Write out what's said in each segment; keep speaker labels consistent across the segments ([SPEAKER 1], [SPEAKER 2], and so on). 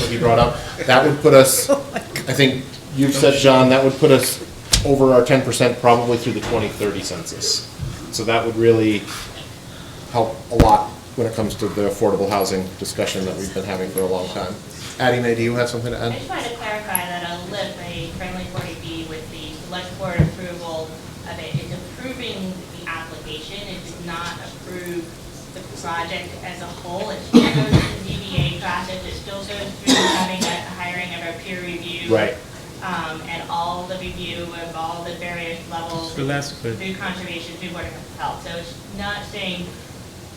[SPEAKER 1] that he brought up, that would put us, I think you've said, John, that would put us over our ten percent probably through the twenty thirty census. So that would really help a lot when it comes to the affordable housing discussion that we've been having for a long time. Addie, May, do you have something to
[SPEAKER 2] I
[SPEAKER 1] add?
[SPEAKER 2] just wanted to clarify that I'll live a friendly 40B with the select board approval of it. It's approving the application, it does not approve the project as a whole. It still goes through the DVA process, it still goes through having a hiring of a peer review.
[SPEAKER 1] Right.
[SPEAKER 2] Um, and all the review of all the various levels.
[SPEAKER 3] So that's good.
[SPEAKER 2] Through conservation, through Board of Health. So it's not saying,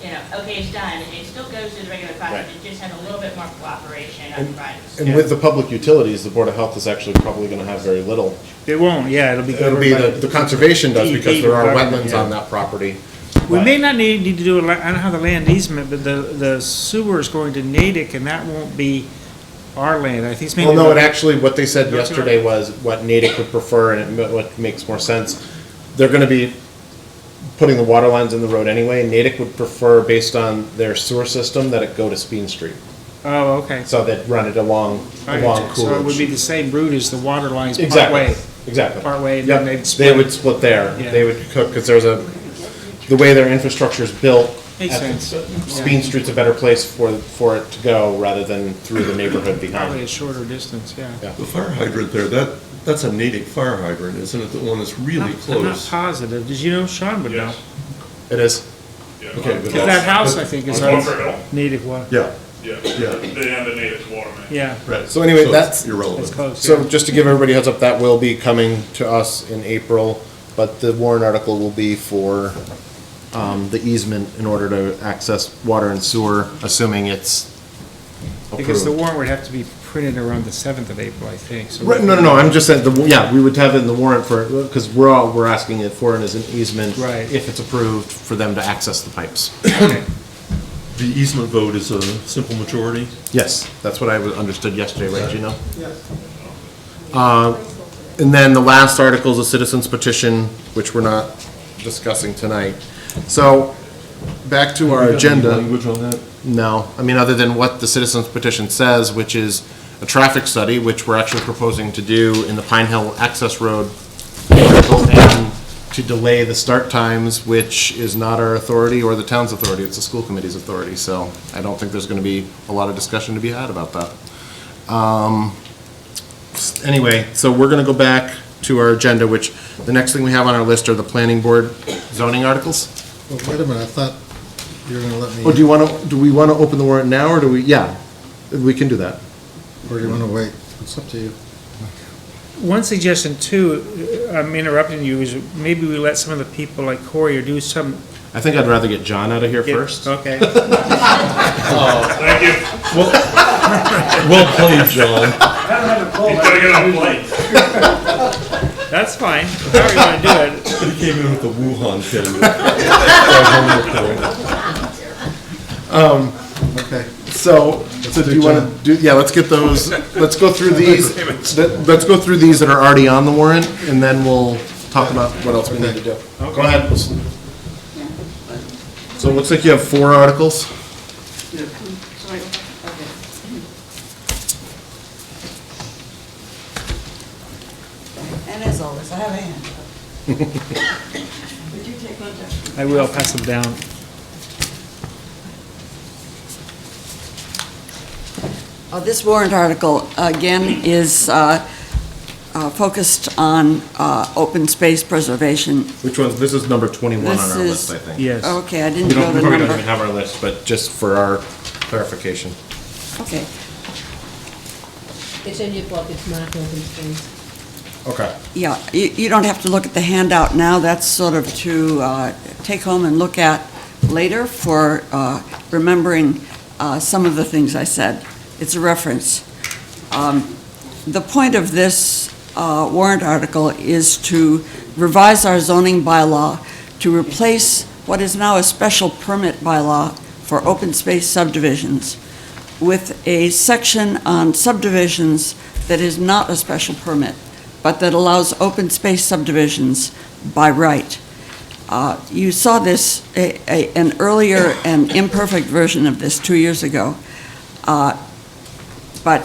[SPEAKER 2] you know, okay, it's done. It still goes through the regular process,
[SPEAKER 1] Right.
[SPEAKER 2] it just has a little bit more cooperation
[SPEAKER 1] And-
[SPEAKER 2] upfront.
[SPEAKER 1] And with the public utilities, the Board of Health is actually probably gonna have very little.
[SPEAKER 3] They won't, yeah, it'll be
[SPEAKER 1] It'll be the,
[SPEAKER 3] governed
[SPEAKER 1] the
[SPEAKER 3] by.
[SPEAKER 1] conservation does, because there are
[SPEAKER 3] DEP,
[SPEAKER 1] wetlands
[SPEAKER 3] yeah.
[SPEAKER 1] on that property.
[SPEAKER 3] We may not need, need to do, a la- I don't have the land easement, but the, the sewer is going to Natick and that won't be our land. I think it's
[SPEAKER 1] Well,
[SPEAKER 3] maybe.
[SPEAKER 1] no, it actually, what they said
[SPEAKER 3] Go to it.
[SPEAKER 1] yesterday was what Natick would prefer and it ma- what makes more sense. They're gonna be putting the water lines in the road anyway. Natick would prefer, based on their sewer system, that it go to Speen Street.
[SPEAKER 3] Oh, okay.
[SPEAKER 1] So they'd run it along,
[SPEAKER 3] I
[SPEAKER 1] along
[SPEAKER 3] got you. So it would be
[SPEAKER 1] Coolidge.
[SPEAKER 3] the same route as the water lines
[SPEAKER 1] Exactly,
[SPEAKER 3] partway.
[SPEAKER 1] exactly.
[SPEAKER 3] Partway, and
[SPEAKER 1] Yep,
[SPEAKER 3] then they'd
[SPEAKER 1] They
[SPEAKER 3] split.
[SPEAKER 1] would split there.
[SPEAKER 3] Yeah.
[SPEAKER 1] They would cook, because there's a, the way their infrastructure is built.
[SPEAKER 3] Makes
[SPEAKER 1] at the-
[SPEAKER 3] sense.
[SPEAKER 1] Speen Street's a better place for, for it to go rather than through the neighborhood
[SPEAKER 3] Probably
[SPEAKER 1] behind.
[SPEAKER 3] a shorter distance, yeah.
[SPEAKER 1] Yeah.
[SPEAKER 4] The fire hydrant there, that, that's a Natick fire hydrant, isn't it? The one that's really
[SPEAKER 3] I'm- I'm not
[SPEAKER 4] close.
[SPEAKER 3] positive. Did you know Sean would know?
[SPEAKER 5] Yes.
[SPEAKER 1] It is.
[SPEAKER 5] Yeah.
[SPEAKER 4] Okay,
[SPEAKER 5] on-
[SPEAKER 4] but
[SPEAKER 3] Because that
[SPEAKER 4] that's-
[SPEAKER 3] house, I think, is
[SPEAKER 5] On
[SPEAKER 3] on
[SPEAKER 5] Bunker Hill?
[SPEAKER 3] Natick one.
[SPEAKER 4] Yeah,
[SPEAKER 5] Yeah.
[SPEAKER 4] Yeah.
[SPEAKER 5] They have the native water main.
[SPEAKER 3] Yeah,
[SPEAKER 4] right.
[SPEAKER 1] So anyway,
[SPEAKER 4] it's
[SPEAKER 1] that's-
[SPEAKER 3] it's
[SPEAKER 4] Irrelevant.
[SPEAKER 3] close.
[SPEAKER 1] So
[SPEAKER 3] yeah.
[SPEAKER 1] just to give everybody a heads up, that will be coming to us in April, but the warrant article will be for um, the easement in order to access water and sewer, assuming it's
[SPEAKER 3] Because the
[SPEAKER 1] approved.
[SPEAKER 3] warrant would have to be printed around the seventh of April, I think, so.
[SPEAKER 1] Right, no, no, no, I'm just saying, the yeah, we would have it in the warrant for, because we're all, we're asking it for it as an easement.
[SPEAKER 3] Right.
[SPEAKER 1] If it's approved, for them to access the pipes.
[SPEAKER 3] Okay.
[SPEAKER 4] The easement vote is a simple majority.
[SPEAKER 1] Yes, that's what I was- understood yesterday, right, Gino? Yes. And then the last article is a citizen's petition, which we're not discussing tonight. So, back to our
[SPEAKER 4] We got any
[SPEAKER 1] agenda.
[SPEAKER 4] Language on that?
[SPEAKER 1] No, I mean, other than what the citizen's petition says, which is a traffic study, which we're actually proposing to do in the Pine Hill Access Road article, and to delay the start times, which is not our authority or the town's authority, it's the school committee's authority, so I don't think there's gonna be a lot of discussion to be had about that. Um, s- Anyway, so we're gonna go back to our agenda, which, the next thing we have on our list are the planning board zoning articles.
[SPEAKER 6] Well, wait a minute, I thought you were gonna let me,
[SPEAKER 1] Or Oh, do you want to, do we want to open the warrant now, or do we, yeah, we can do that.
[SPEAKER 6] or do you wanna wait? It's up to you.
[SPEAKER 3] One suggestion too, uh, I'm interrupting you, is maybe we let some of the people like Corey or do some.
[SPEAKER 1] I think I'd rather get John out of here
[SPEAKER 3] get-
[SPEAKER 1] first.
[SPEAKER 3] Okay.
[SPEAKER 5] Thank you.
[SPEAKER 4] Well played, John.
[SPEAKER 5] He's gotta get on a plane.
[SPEAKER 3] That's fine, however you want to do it.
[SPEAKER 4] He came in with the Wuhan thing.
[SPEAKER 6] Okay.
[SPEAKER 1] So, so do you want to do, yeah, let's get those, let's go through these, let- let's go through these that are already on the warrant, and then we'll talk about what else we need to do. Go ahead. So it looks like you have four articles.
[SPEAKER 7] And as always, I have a hand. Would you take one down?
[SPEAKER 3] I will pass them down.
[SPEAKER 7] Uh, This warrant article, again, is uh, uh, focused on uh, open space preservation.
[SPEAKER 1] Which ones, this is number 21 on
[SPEAKER 7] This
[SPEAKER 1] our list,
[SPEAKER 7] is-
[SPEAKER 1] I think.
[SPEAKER 3] Yes.
[SPEAKER 7] Okay, I
[SPEAKER 1] We
[SPEAKER 7] didn't know
[SPEAKER 1] don't, we
[SPEAKER 7] the
[SPEAKER 1] probably don't even
[SPEAKER 7] number.
[SPEAKER 1] have our list, but just for our clarification.
[SPEAKER 7] Okay,
[SPEAKER 8] It's in your book, it's not open space.
[SPEAKER 1] Okay.
[SPEAKER 7] yeah, you you don't have to look at the handout now, that's sort of to uh, take home and look at later for uh, remembering uh, some of the things I said. It's a reference. Um, The point of this uh, warrant article is to revise our zoning bylaw to replace what is now a special permit bylaw for open space subdivisions with a section on subdivisions that is not a special permit, but that allows open space subdivisions by right. Uh, You saw this, a- a- an earlier and imperfect version of this two years ago. Uh, But